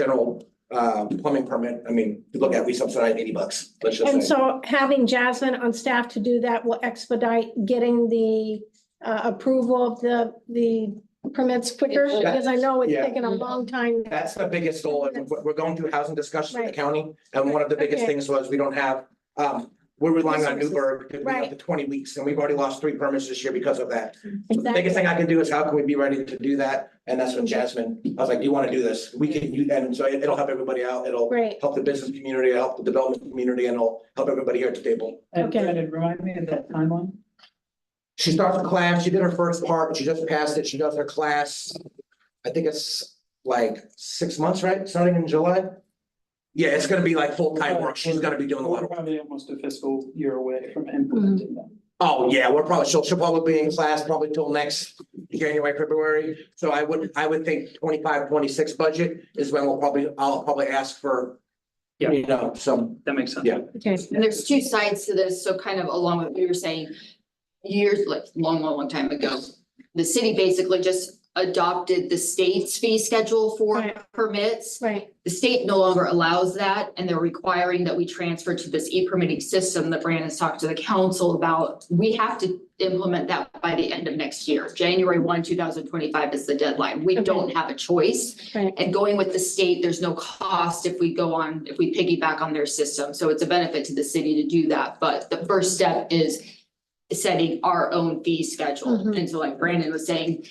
general uh plumbing permit, I mean, you look at, we subsidize eighty bucks, let's just And say. so having Jasmine on staff to do that will expedite getting the uh, approval of the, the permits quicker, Yeah. because I know it's Yeah. taken a long time. That's the biggest goal, and we're, we're going through housing discussions with the Right. county, and one of the biggest Okay. things was we don't have, um, we're relying on Newburgh because we have Right. the twenty weeks, and we've already lost three permits this year because of that. So The Exactly. biggest thing I can do is how can we be ready to do that? And that's when Jasmine, I was like, do you want to do this? We can, you, and so it- it'll help everybody out. It'll Great. help the business community, it'll help the development community, and it'll help everybody here at the table. And Okay. Brendan, remind me of that timeline. She starts a class, she did her first part, she just passed it, she does her class. I think it's like six months, right? Starting in July? Yeah, it's gonna be like full-time work. She's gonna be doing a lot We're of, probably almost a fiscal year away from Mm-hmm. implementing that. oh, yeah, we're probably, she'll, she'll probably be in class probably till next January, February. So I would, I would think 25, 26 budget is when we'll probably, I'll probably ask for, Yeah. you know, some, That makes sense. Yeah. Okay, And there's two sides to this, so kind of along with what you were saying, years, like, long, long, long time ago, the city basically just adopted the state's fee schedule for Right. permits. right, The state no longer allows that, and they're requiring that we transfer to this e-permitting system that Brandon's talked to the council about. We have to implement that by the end of next year. January one, two thousand twenty-five is the deadline. We Okay. don't have a choice. right. And going with the state, there's no cost if we go on, if we piggyback on their system. So it's a benefit to the city to do that. But the first step is setting our own fee schedule. Mhm. And so like Brandon was saying,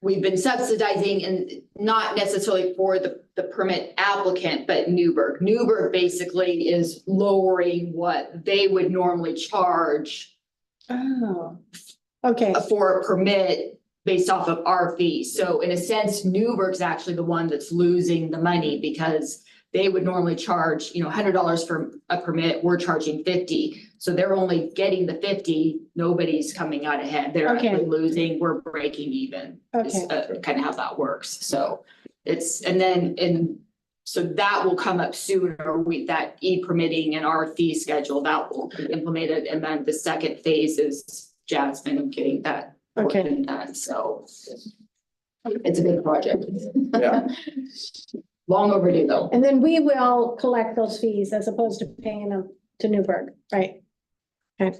we've been subsidizing and not necessarily for the, the permit applicant, but Newburgh. Newburgh basically is lowering what they would normally charge Oh, okay, for a permit based off of our fees. So in a sense, Newburgh's actually the one that's losing the money because they would normally charge, you know, hundred dollars for a permit, we're charging fifty. So they're only getting the fifty, nobody's coming out ahead. They're Okay. actually losing, we're breaking even. okay, uh, Kind of how that works. So it's, and then, and so that will come up sooner with that e-permitting and our fee schedule that will be implemented. And then the second phase is Jasmine getting that. work okay. done. So it's a big project. Yeah. Long overdue though. And then we will collect those fees as opposed to paying them to Newburgh, right? All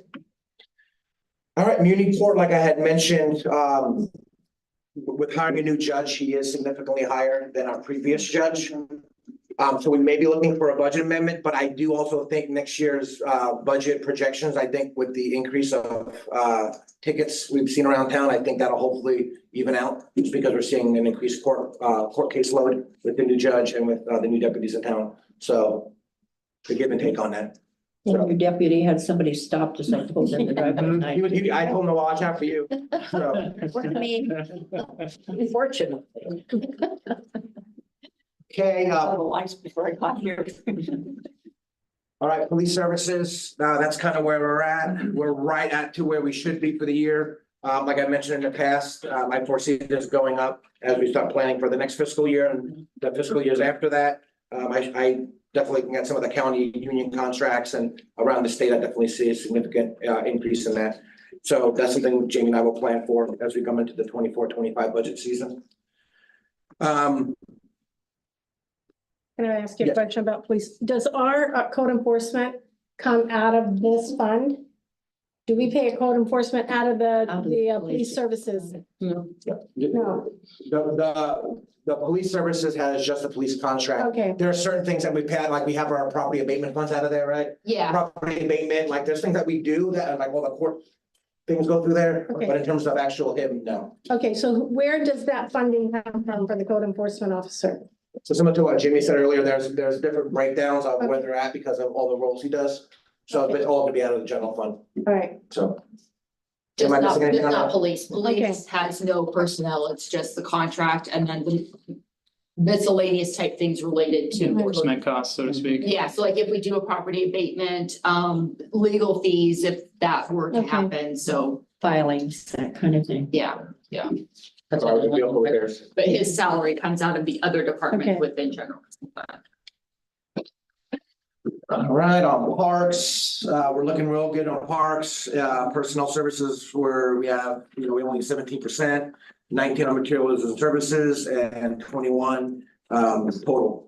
right, Muniport, like I had mentioned, um, with hiring a new judge, he is significantly higher than our previous judge. Um, so we may be looking for a budget amendment, but I do also think next year's, uh, budget projections, I think with the increase of, uh, tickets we've seen around town, I think that'll hopefully even out, just because we're seeing an increased court, uh, court caseload with the new judge and with, uh, the new deputies in town. So the give and take on that. And your deputy had somebody stopped us, I told him the driveway He tonight. Mm-hmm. would, he, I told him to watch out for you, so. Fortunately. Okay, uh, The lights before I got here. All right, police services, uh, that's kind of where we're at. We're right at to where we should be for the year. Um, like I mentioned in the past, um, I foresee this going up as we start planning for the next fiscal year and the fiscal years after that. Um, I, I definitely can get some of the county union contracts and around the state, I definitely see a significant, uh, increase in that. So that's something Jamie and I will plan for as we come into the 24-25 budget season. Um, Can I ask you a Yes. question about police? Does our uh, code enforcement come out of this fund? Do we pay a code enforcement out of the, Out of the uh, the police police. services? the, No, the, the police services has just a police contract. okay, There are certain things that we pay, like we have our property abatement funds out of there, right? Yeah, Property abatement, like there's things that we do that are like, well, the court things go through there, Okay. but in terms of actual him, no. okay, so where does that funding come from for the code enforcement officer? So similar to what Jimmy said earlier, there's, there's different breakdowns of where they're at because of all the roles he does. So it's all gonna be out of the general fund, All right, so. just Am I not, missing anything just on not that? police. Police has no personnel. It's just the contract and then the miscellaneous type things related to. Enforcement costs, so to speak. Yeah, so like if we do a property abatement, um, legal fees, if that were to Okay. happen, so, Filings, that kind of thing. yeah. So I would be over there. But his salary comes out of the other Okay. department within general. All right, on parks, uh, we're looking real good on parks, uh, personnel services where we have, you know, we only seventeen percent. Nineteen on materials and services and twenty-one, um, total.